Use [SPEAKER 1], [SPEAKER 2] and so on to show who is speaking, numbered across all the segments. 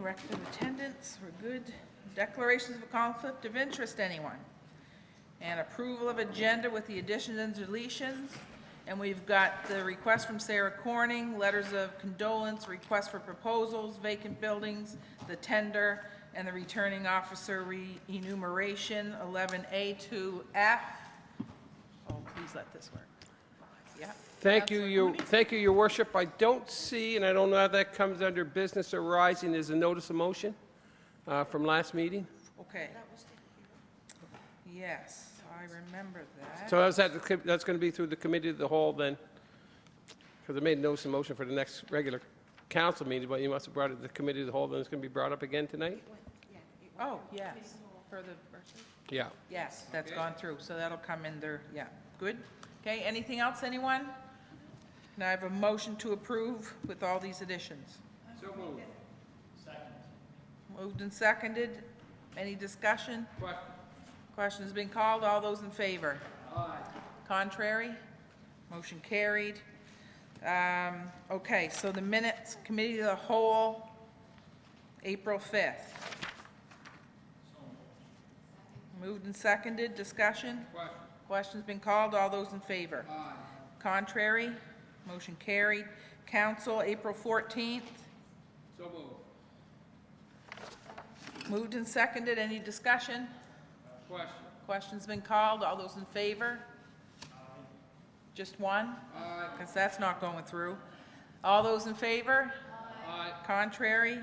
[SPEAKER 1] record of attendance, we're good. Declarations of conflict of interest, anyone? And approval of agenda with the additions and deletions. And we've got the request from Sarah Corning, letters of condolence, request for proposals, vacant buildings, the tender, and the returning officer re- enumeration, 11A to F. Oh, please let this work. Yeah.
[SPEAKER 2] Thank you,
[SPEAKER 1] Counselor
[SPEAKER 2] your,
[SPEAKER 1] Mooney?
[SPEAKER 2] thank you, your worship. I don't see, and I don't know how that comes under business arising, is a notice of motion uh, from last meeting.
[SPEAKER 1] Okay. Yes, I remember that.
[SPEAKER 2] So that's, that's going to be through the committee of the whole then, because I made a notice of motion for the next regular council meeting, but you must have brought it to the committee of the whole, then it's going to be brought up again tonight?
[SPEAKER 1] Oh, yes, for the, verses?
[SPEAKER 2] Yeah.
[SPEAKER 1] yes, that's gone through, so that'll come in there, yeah, good. Okay, anything else, anyone? Now I have a motion to approve with all these additions.
[SPEAKER 2] So moved.
[SPEAKER 1] Moved and seconded, any discussion? Question has been called, all those in favor? Contrary? Motion carried. Um, Okay, so the minutes, committee of the whole, April 5th. Moved and seconded, discussion? Question's been called, all those in favor? Contrary? Motion carried. Council, April 14th.
[SPEAKER 2] So moved.
[SPEAKER 1] Moved and seconded, any discussion?
[SPEAKER 2] Question.
[SPEAKER 1] Question's been called, all those in favor? Just one? Because that's not going through. All those in favor? Contrary?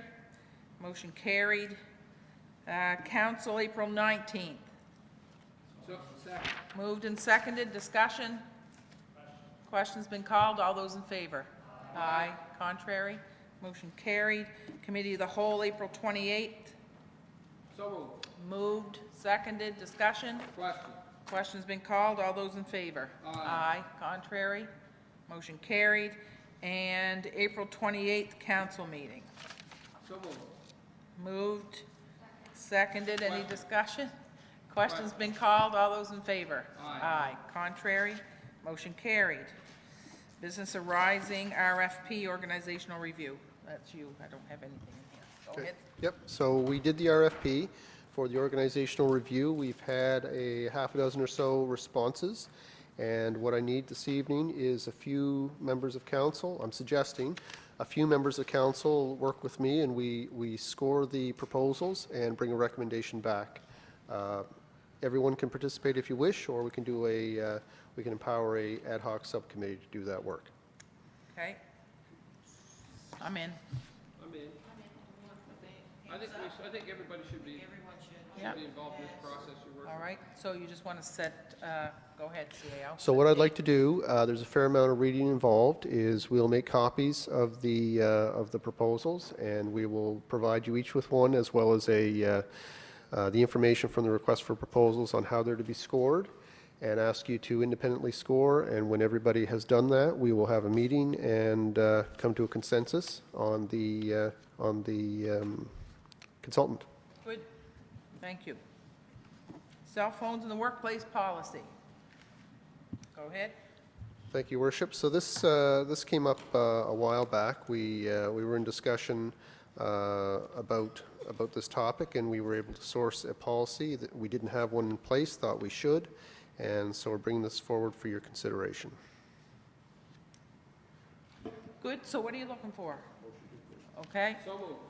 [SPEAKER 1] Motion carried. Uh, Council, April 19th. Moved and seconded, discussion? Question's been called, all those in favor? Aye. Contrary? Motion carried. Committee of the Whole, April 28th.
[SPEAKER 2] So moved.
[SPEAKER 1] Moved, seconded, discussion?
[SPEAKER 2] Question.
[SPEAKER 1] Question's been called, all those in favor? Aye. contrary, motion carried. And April 28th, council meeting.
[SPEAKER 2] So moved.
[SPEAKER 1] Moved, seconded, any discussion? Question's been called, all those in favor? Aye. contrary, motion carried. Business arising, RFP, organizational review. That's you, I don't have anything in here. Go
[SPEAKER 3] Okay.
[SPEAKER 1] ahead.
[SPEAKER 3] Yep, so we did the RFP for the organizational review. We've had a half a dozen or so responses. And what I need this evening is a few members of council, I'm suggesting, a few members of council work with me and we, we score the proposals and bring a recommendation back. Uh, Everyone can participate if you wish, or we can do a, uh, we can empower a ad hoc subcommittee to do that work.
[SPEAKER 1] Okay? I'm in.
[SPEAKER 2] I'm in. I think, we- I think everybody should be,
[SPEAKER 1] Yeah.
[SPEAKER 2] should be involved in this process you work.
[SPEAKER 1] All right, so you just want to set, uh, go ahead, CAO.
[SPEAKER 3] So what I'd like to do, uh, there's a fair amount of reading involved, is we'll make copies of the, uh, of the proposals, and we will provide you each with one, as well as a, uh, uh, the information from the request for proposals on how they're to be scored, and ask you to independently score, and when everybody has done that, we will have a meeting and uh, come to a consensus on the, uh, on the um, consultant.
[SPEAKER 1] Good, thank you. Cell phones in the workplace policy. Go ahead.
[SPEAKER 3] Thank you, Worship. So this, uh, this came up uh, a while back. We, uh, we were in discussion uh, about, about this topic, and we were able to source a policy that we didn't have one in place, thought we should, and so we're bringing this forward for your consideration.
[SPEAKER 1] Good, so what are you looking for? Okay,
[SPEAKER 2] So moved.